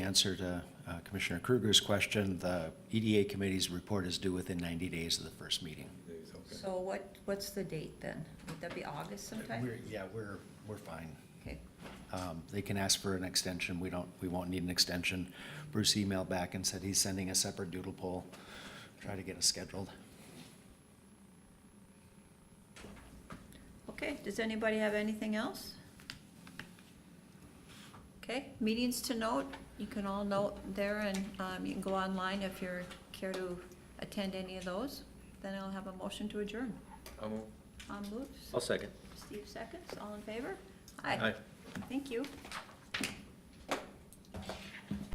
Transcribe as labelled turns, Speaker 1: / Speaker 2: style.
Speaker 1: answer to uh, Commissioner Kruger's question, the EDA committee's report is due within 90 days of the first meeting.
Speaker 2: So what, what's the date then? Would that be August sometime?
Speaker 1: We're- Yeah, we're, we're fine.
Speaker 2: Okay,
Speaker 1: Um, They can ask for an extension, we don't, we won't need an extension. Bruce emailed back and said he's sending a separate doodle poll, try to get us scheduled.
Speaker 2: okay, does anybody have anything else? Okay, meetings to note, you can all note there and, um, you can go online if you're care to attend any of those. Then I'll have a motion to adjourn.
Speaker 3: I'll move.
Speaker 2: On moves,
Speaker 4: I'll second.
Speaker 2: Steve seconds, all in favor?
Speaker 3: Aye.
Speaker 2: Thank you.